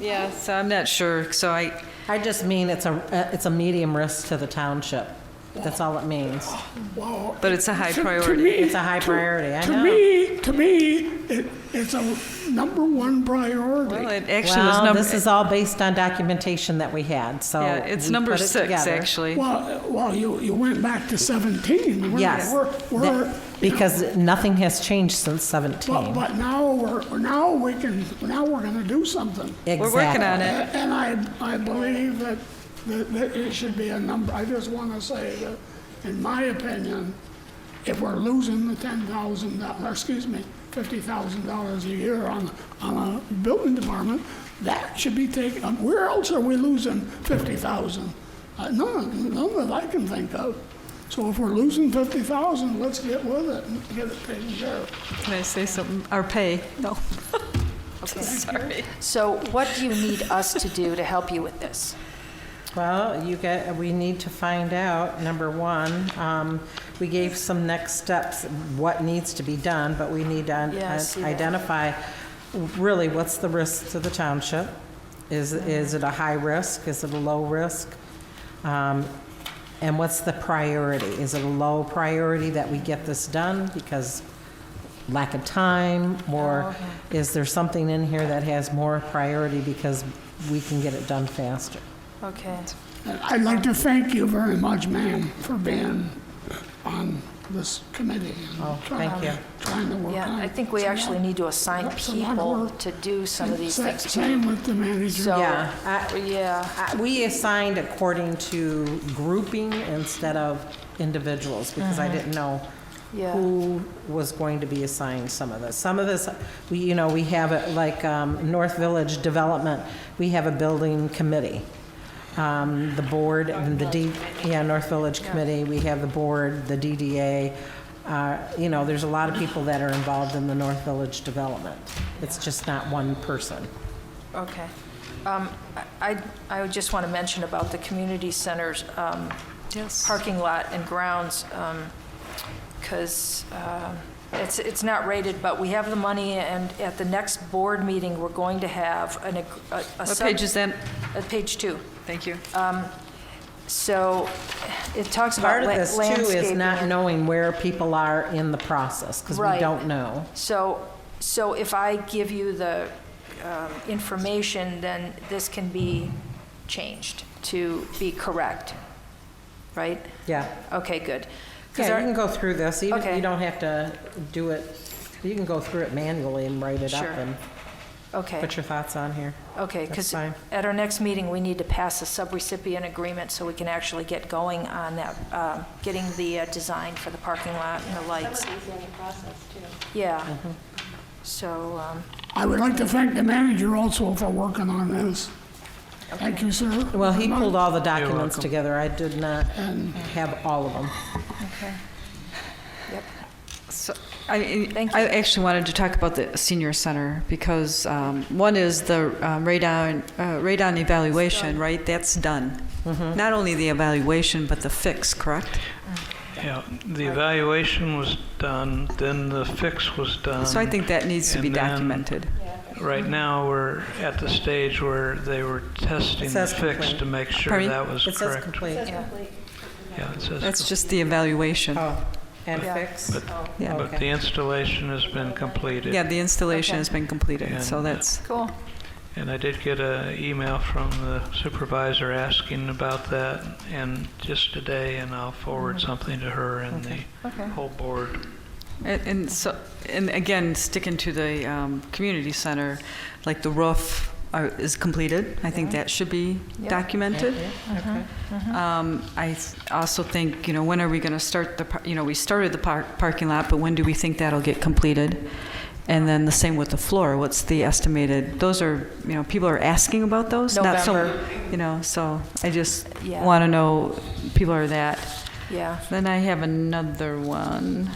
Yeah, so I'm not sure, so I, I just mean it's a, uh, it's a medium risk to the township. That's all it means. Wow. But it's a high To- to priority. me- It's a high to- priority, I know. To me, to me, it, it's a number one well, priority. it actually was Well, number. this is all based on documentation that we had, so. Yeah, it's we number put it six, together. actually. Well, well, you, you went back to 17. We're- Yes. We're, we're, That- Because nothing has changed since but, 17. but now we're, now we can, now we're gonna do something. We're working on Exactly. it. And I, I believe that, that, that it should be a number, I just wanna say that, in my opinion, if we're losing the ten thousand, or excuse me, fifty thousand dollars a year on, on a building department, that should be taken, um, where else are we losing fifty thousand? Uh, none, none that I can think of. So if we're losing fifty thousand, let's get with it and get it taken care of. Can I say something? Or pay? No. Sorry. So what do you need us to do to help you with this? Well, you get, we need to find out, number one, um, we gave some next steps, what needs to be done, but we need to Yeah, I see un- that. identify really what's the risk to the township? Is, is it a high risk? Is it a low risk? Um, and what's the priority? Is it a low priority that we get this done because lack of time? Oh, Or is there something in here that has more priority because we can get it done faster? Okay. And I'd like to thank you very much, ma'am, for being on this committee. and Oh, trying- thank you. Trying to work on it. Yeah, I think we It's a lot- actually need to assign it's a lot of people work. to do some of these Sa- things. too. Same with the manager. So, Yeah, I- yeah. Uh, We assigned according to grouping instead of individuals, because I didn't know Yeah. who was going to be assigned some of this. Some of this, we, you know, we have, it like, um, North Village Development, we have a building committee. Um, The board and the D, yeah, North Village Committee, we have the board, the DDA. uh, You know, there's a lot of people that are involved in the North Village Development. It's just not one person. uh, Okay. Um, I, I I just want to mention about the community centers, um, Yes. parking lot and grounds, because it's, it's not rated, but we have the money, and at the next board meeting, we're going to have an, ag- a. a What sub- page is that? uh, Page two. Thank you. Uh, So it talks Part about of la- this landscaping. too is not and- knowing where people are in the process, because we Right. don't know. So, so if I give you the um, information, then this can be changed to be correct, right? Yeah. Okay, good. 'Cause Yeah, our- you can go through this, even, Okay. you don't have to do it, you can go through it manually and write it up Sure. and Okay, put your thoughts on here. okay, that's because fine. at our next meeting, we need to pass a subrecipient agreement so we can actually get going on that, uh, getting the uh, design for the parking lot and the lights. Yeah, Mm-hmm. so, um, I would like to thank the manager also for working on this. Thank you, sir. Well, he pulled all the documents together, I did not have all of them. okay. Yep. So, I, I- Thank I actually wanted to talk about the senior center because um, one is the um, radon, uh, radon evaluation, right? That's done. Mm-hmm. Not only the evaluation, but the fix, correct? Yeah, the evaluation was done, then the fix was done. So I think that needs to be Um, and then- documented. Right now, we're at the stage where they were testing the says fix complete. to make sure Pardon me? that was It says correct. complete. Yeah, it says That's com- just the evaluation. Oh, and Yeah. fix? Yeah. But the Okay. installation has been completed. Yeah, the installation Okay. has been completed, so And- that's, Cool. And I did get an email from the supervisor asking about that, and just today, and I'll forward something to her and the Okay. whole board. and- and so, and again, sticking to the um, community center, like the roof are- is completed. I think that should be Yeah. Mm-hmm. documented. Okay. Um, I th- also think, you know, when are we going to start the, par- you know, we started the par- parking lot, but when do we think that'll get completed? And then the same with the floor, what's the estimated, those are, you know, people are asking about those? not so- November. You know, so I just Yeah. want to know, people are that. Yeah. Then I have another one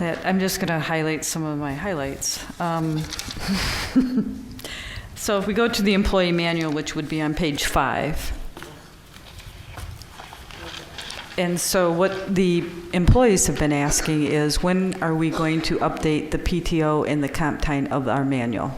that I'm just going to highlight some of my highlights. Um, So if we go to the employee manual, which would be on page five. And so what the employees have been asking is, when are we going to update the PTO and the comp time of our manual?